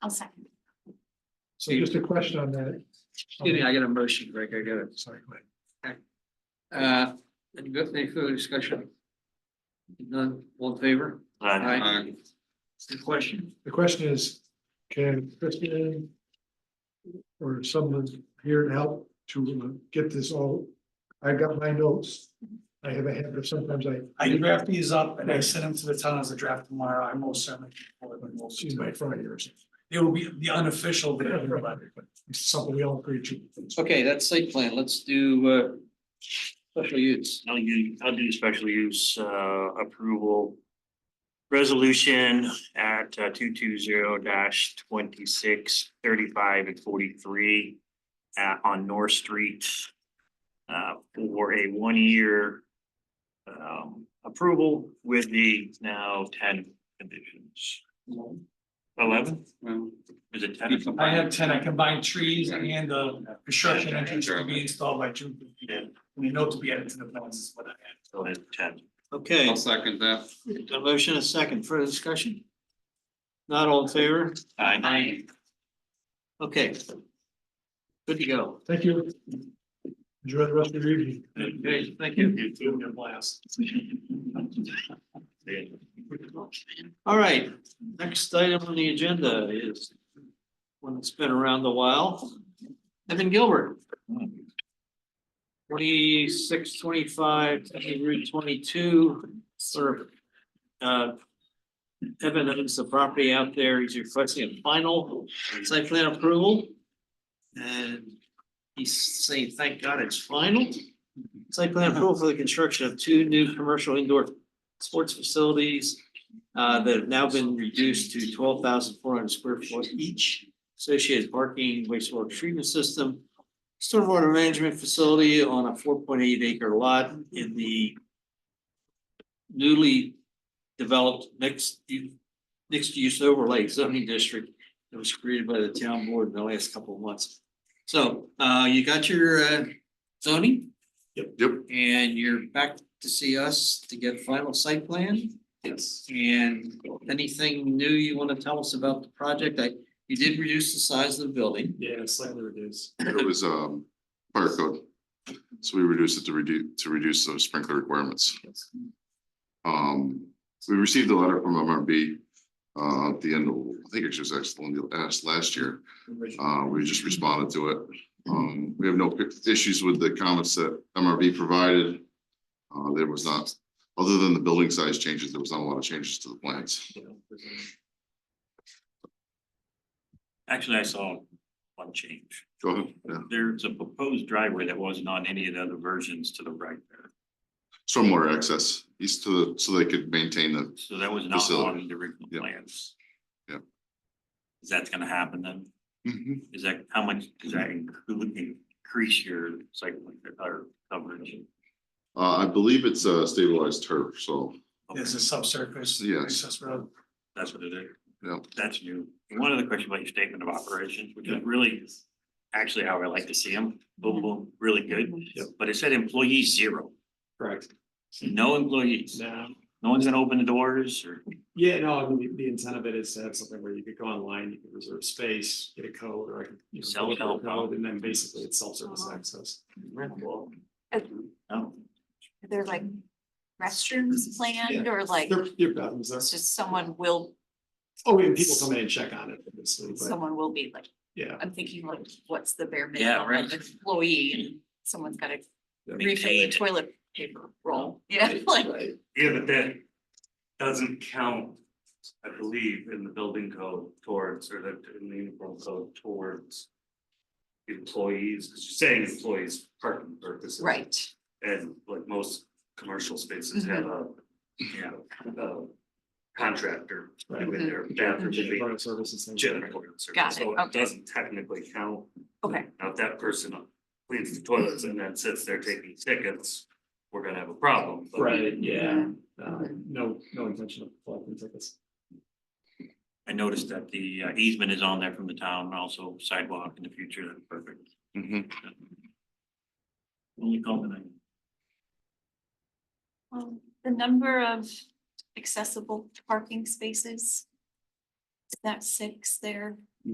I'll second. So just a question on that. Excuse me, I got a motion, Greg, I got it. Sorry, go ahead. Uh, any good- any further discussion? None, all in favor? uh, Aye. The question, The question is, can Kristen or someone here to help to get this all, I've got my notes. I have a habit of sometimes I, I draft these up and I send them to the town as a draft tomorrow. I most certainly. will, but most- excuse my Friday or something. It will be the unofficial but I don't there. know about it, but It's something we all agree to. okay, that's site plan, let's do, uh, special use. I'll do, I'll do special use uh approval. Resolution at uh, two two zero dash twenty-six thirty-five and forty-three uh on North Street. Uh for a one-year um approval with the now ten conditions. Eleven, Well, is it ten? I had ten, I combined trees and the construction entrance to be installed by June. Yeah. We know to be added to the plans is what I had. Go ahead, ten. Okay, second that. a motion, a second, further discussion? Not all in favor? Aye. Okay. Good to go. Thank you. Enjoy the rest of your evening. Okay, thank you. It's gonna be a blast. Yeah. All right, next item on the agenda is one that's been around a while. Evan Gilbert. Twenty-six, twenty-five, Route twenty-two, sort of. uh, Evan owns the property out there. He's requesting a final site plan approval. And he's saying, thank God it's final. Site plan approval for the construction of two new commercial indoor sports facilities uh, that have now been reduced to twelve thousand four hundred square foot each. Associated parking, wastewater treatment system, stormwater management facility on a four point eight acre lot in the newly developed mixed, u- mixed use overlay zoning district that was created by the town board in the last couple of months. So, uh, you got your, uh, zoning? Yep. And you're back to see us to get final site plan? Yes. And anything new you want to tell us about the project? I, you did reduce the size of the building. Yeah, slightly reduced. It was um fire code. So we reduced it to reduce, to reduce those sprinkler requirements. Um, we received a letter from MRB uh at the end of, I think it was actually last last year. Uh, we just responded to it. Um, we have no issues with the comments that MRB provided. Uh, there was not, other than the building size changes, there was not a lot of changes to the plans. Actually, I saw one change. Go ahead, yeah. There's a proposed driveway that wasn't on any of the other versions to the right there. Stormwater access east to, the so they could maintain the So that was not Facility. on the original Yep. plans. Yep. Is that gonna happen then? Mhm. Is that, how much does that include, increase your cycling or coverage? Uh, I believe it's a stabilized turf, so There's a subsurface. Yes. Access road. That's what it is. Yep. That's new. And One other question about your statement of operations, which is really actually how I like to see them. Boom, boom, really good. Yep. But it said employee zero, Correct. no employees. Now, No one's gonna open the doors or, yeah, no, I mean, the- the intent of it is to have something where you could go online, you could reserve space, get a code, or I could. you know, go with Self-help. the Code, and then basically it's self-service access. no. They're like restrooms planned or like, Your, your bathrooms there. it's just someone will, Oh, and people come in and check on it, obviously, but someone will be like, yeah. I'm thinking like, what's the bare Yeah, minimum right. of employee? and Someone's gotta refill the Maintained. toilet paper roll, yeah, like, Right. Yeah, but that doesn't count, I believe, in the building code towards, or that in the uniform code towards. Employees, because you're saying employees parking purposes. right, And like most commercial spaces have Mm-hmm. a, you know, a contractor doing their bathroom. Janitorial services. things like that. janitorial service, Mm-hmm. Got it, so okay. Doesn't technically count. okay, Now, if that person cleans the toilets and then sits there taking tickets, we're gonna have a problem. but- Right, yeah, Uh, no, no intention of collecting tickets. I noticed that the uh, easement is on there from the town, and also sidewalk in the future, that's perfect. Mhm. Only comment I. Um, the number of accessible parking spaces. Is that six there?